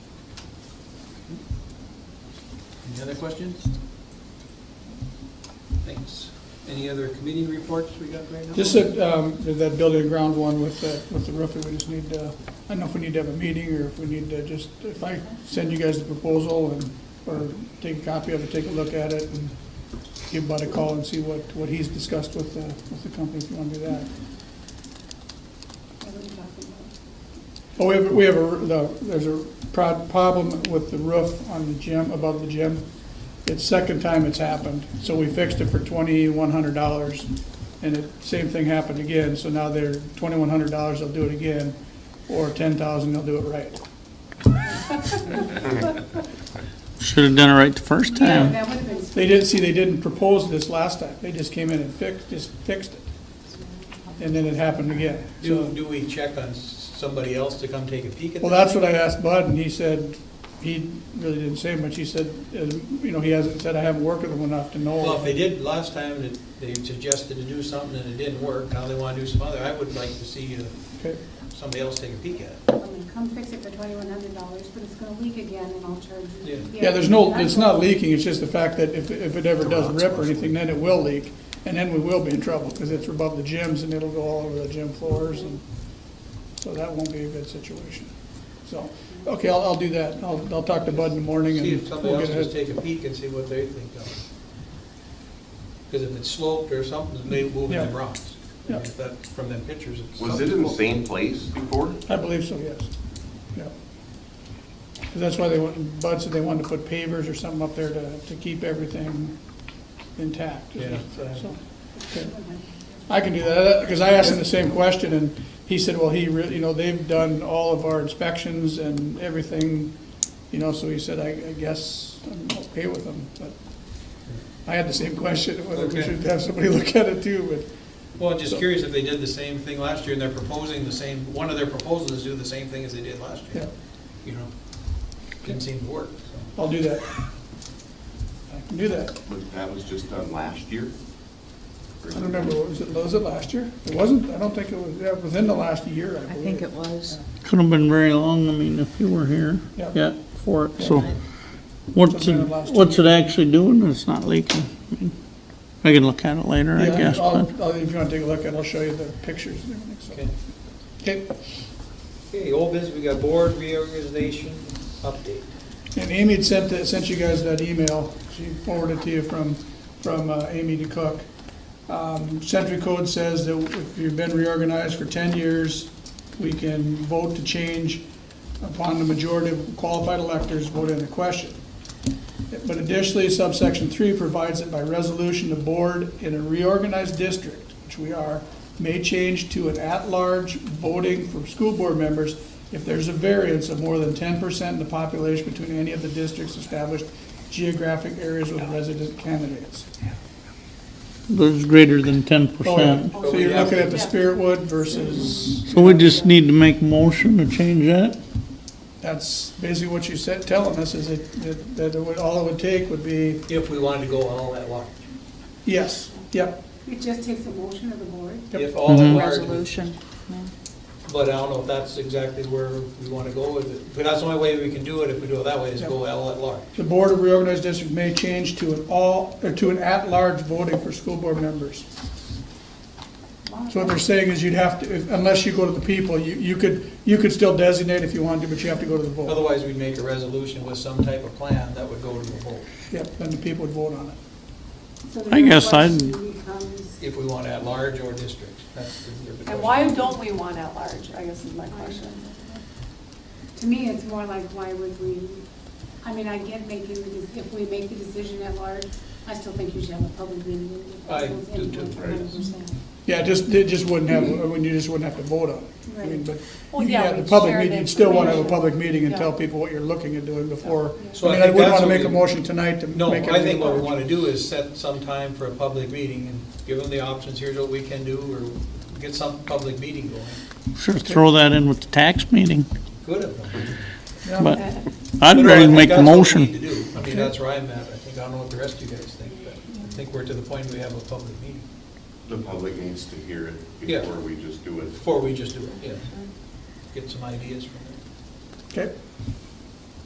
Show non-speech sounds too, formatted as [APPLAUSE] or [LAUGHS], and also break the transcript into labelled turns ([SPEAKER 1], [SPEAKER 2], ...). [SPEAKER 1] Any other questions? Thanks. Any other committee reports we got right now?
[SPEAKER 2] Just that, um, that building and ground one with the, with the roofing, we just need, uh, I don't know if we need to have a meeting or if we need to just, if I send you guys the proposal and, or take a copy of it, take a look at it and give Bud a call and see what, what he's discussed with, uh, with the company, if you wanna do that.
[SPEAKER 3] What are we talking about?
[SPEAKER 2] Oh, we have, we have a, the- there's a pro- problem with the roof on the gym, above the gym. It's second time it's happened, so we fixed it for twenty-one hundred dollars. And it, same thing happened again, so now they're, twenty-one hundred dollars, they'll do it again, or ten thousand, they'll do it right.
[SPEAKER 4] Should have done it right the first
[SPEAKER 3] Yeah,
[SPEAKER 4] time.
[SPEAKER 3] that would have been.
[SPEAKER 2] They didn't, see, they didn't propose this last time, they just came in and fixed, just fixed it. And then it happened again,
[SPEAKER 1] Do,
[SPEAKER 2] so.
[SPEAKER 1] do we check on s- somebody else to come take a peek at that?
[SPEAKER 2] Well, that's what I asked Bud, and he said, he really didn't say much, he said, uh, you know, he hasn't said, I haven't worked with him enough to know.
[SPEAKER 1] Well, if they did, last time, that they suggested to do something and it didn't work, now they want to do some other, I would like to see uh,
[SPEAKER 2] Okay.
[SPEAKER 1] somebody else take a peek at it.
[SPEAKER 3] I'm gonna come fix it for twenty-one hundred dollars, but it's gonna leak again and I'll charge you.
[SPEAKER 1] Yeah.
[SPEAKER 2] Yeah, there's no, it's not leaking, it's just the fact that if, if it ever does rip or anything, then it will leak, and then we will be in trouble, because it's above the gyms, and it'll go all over the gym floors, and, so that won't be a good situation. So, okay, I'll, I'll do that, I'll, I'll talk to Bud in the morning,
[SPEAKER 1] See if
[SPEAKER 2] and
[SPEAKER 1] somebody
[SPEAKER 2] we'll
[SPEAKER 1] else
[SPEAKER 2] get
[SPEAKER 1] just
[SPEAKER 2] it.
[SPEAKER 1] take a peek and see what they think of it. Because if it's sloped or something, it may move the
[SPEAKER 2] Yeah.
[SPEAKER 1] rocks. I
[SPEAKER 2] Yeah.
[SPEAKER 1] mean, if that, from them pictures, it's.
[SPEAKER 5] Was it
[SPEAKER 1] something
[SPEAKER 5] in the
[SPEAKER 1] sloped.
[SPEAKER 5] same place before?
[SPEAKER 2] I believe so, yes, yeah. 'Cause that's why they want, Bud said they wanted to put pavers or something up there to, to keep everything intact.
[SPEAKER 1] Yeah.
[SPEAKER 2] So, okay. I can do that, because I asked him the same question, and he said, well, he really, you know, they've done all of our inspections and everything, you know, so he said, I, I guess I'm okay with them, but I had the same question, whether we
[SPEAKER 1] Okay.
[SPEAKER 2] should have somebody [LAUGHS] look at it too,
[SPEAKER 1] Well, I'm just curious if they did the same thing last year and they're proposing the same, one of their proposals is do the same thing as they did last
[SPEAKER 2] but,
[SPEAKER 1] year.
[SPEAKER 2] yeah,
[SPEAKER 1] You know, didn't seem to work, so.
[SPEAKER 2] I'll do that. I can do that.
[SPEAKER 5] But that was just done last year?
[SPEAKER 2] I don't remember, what was it, was it last year? It wasn't, I don't think it was, yeah, within the last year, I
[SPEAKER 6] I
[SPEAKER 2] believe.
[SPEAKER 6] think it was.
[SPEAKER 4] Could have been very long, I mean, if you were here,
[SPEAKER 2] Yeah.
[SPEAKER 4] yeah, for it, so. What's it,
[SPEAKER 2] Sometime last
[SPEAKER 4] what's it actually doing? It's not leaking. I mean, I can look at it later, I
[SPEAKER 2] Yeah,
[SPEAKER 4] guess,
[SPEAKER 2] I'll-
[SPEAKER 4] but
[SPEAKER 2] I'll- If you want to take a look, at it, I'll show you the pictures and
[SPEAKER 1] Okay,
[SPEAKER 2] everything, so. Okay.
[SPEAKER 1] Okay, old business, we got board reorganization update.
[SPEAKER 2] And Amy had sent, that- sent you guys that email, she forwarded to you from, from uh, Amy DeCook. Um, Century Code says that if you've been reorganized for ten years, we can vote to change upon the majority of qualified electors voting the question. But additionally, subsection three provides that by resolution, the board in a reorganized district, which we are, may change to an at-large voting for school board members if there's a variance of more than ten percent in the population between any of the district's established geographic areas with resident candidates.
[SPEAKER 4] there's greater than ten
[SPEAKER 2] Oh, yeah.
[SPEAKER 4] percent.
[SPEAKER 2] So you're looking at the Spiritwood versus,
[SPEAKER 4] So we just need to make a motion to change that?
[SPEAKER 2] that's basically what you said, telling us is that- that, that it would, all it would take would be,
[SPEAKER 1] If we wanted to go all that large.
[SPEAKER 2] yes, yep,
[SPEAKER 3] It just takes a motion of the board.
[SPEAKER 2] Yep.
[SPEAKER 1] If all
[SPEAKER 7] Mm-hmm.
[SPEAKER 1] that large,
[SPEAKER 6] Resolution.
[SPEAKER 1] but I don't know if that's exactly where we want to go with it. But that's the only way we can do it, if we do it that way, is go all at large.
[SPEAKER 2] The Board of Reorganized District may change to an all, or to an at-large voting for school board members. So what they're saying is you'd have to, unless you go to the people, you, you could, you could still designate if you wanted to, but you have to go to the vote.
[SPEAKER 1] Otherwise, we'd make a resolution with some type of plan that would go to the vote,
[SPEAKER 2] Yep, then the people would vote on it.
[SPEAKER 3] So
[SPEAKER 4] I
[SPEAKER 3] the
[SPEAKER 4] guess I'd-
[SPEAKER 3] question becomes-
[SPEAKER 1] if we want at large or districts. That's the- the
[SPEAKER 7] And
[SPEAKER 1] question.
[SPEAKER 7] why don't we want at large, I guess is my question.
[SPEAKER 3] To me, it's more like, why would we, I mean, I get making, the dec- if we make the decision at large, I still think you should have a public meeting. with the
[SPEAKER 1] I
[SPEAKER 3] people's
[SPEAKER 1] do
[SPEAKER 3] input,
[SPEAKER 1] too.
[SPEAKER 3] 100%.
[SPEAKER 2] Yeah, it just, it just wouldn't have,
[SPEAKER 1] Mm-hmm.
[SPEAKER 2] I mean, you just wouldn't have to vote on it. I mean, but
[SPEAKER 7] Well,
[SPEAKER 2] you
[SPEAKER 7] yeah,
[SPEAKER 2] have the
[SPEAKER 7] we'd
[SPEAKER 2] public
[SPEAKER 7] share the
[SPEAKER 2] meeting, you'd still wanna have a
[SPEAKER 7] information.
[SPEAKER 2] public meeting and
[SPEAKER 7] Yeah.
[SPEAKER 2] tell people what you're looking at doing
[SPEAKER 1] So
[SPEAKER 2] before. I
[SPEAKER 1] I
[SPEAKER 2] mean, I
[SPEAKER 1] think
[SPEAKER 2] wouldn't
[SPEAKER 1] that's
[SPEAKER 2] wanna
[SPEAKER 1] what
[SPEAKER 2] make a
[SPEAKER 1] we-
[SPEAKER 2] motion tonight to
[SPEAKER 1] No,
[SPEAKER 2] make it.
[SPEAKER 1] I think what we want to do is set some time for a public meeting and give them the options, here's what we can do, or get some public meeting going.
[SPEAKER 4] Sure, throw that in with the tax meeting,
[SPEAKER 1] Good of them.
[SPEAKER 4] but I'd
[SPEAKER 1] But I
[SPEAKER 4] rather
[SPEAKER 1] think
[SPEAKER 4] make the
[SPEAKER 1] that's what we
[SPEAKER 4] motion.
[SPEAKER 1] need to do. I mean, that's where I'm at, I think, I don't know what the rest of you guys think, but I think we're to the point we have a public meeting,
[SPEAKER 5] The public needs to hear it
[SPEAKER 1] Yeah.
[SPEAKER 5] before we just do it.
[SPEAKER 1] before we just do it, yeah. Get some ideas from them.
[SPEAKER 2] Okay,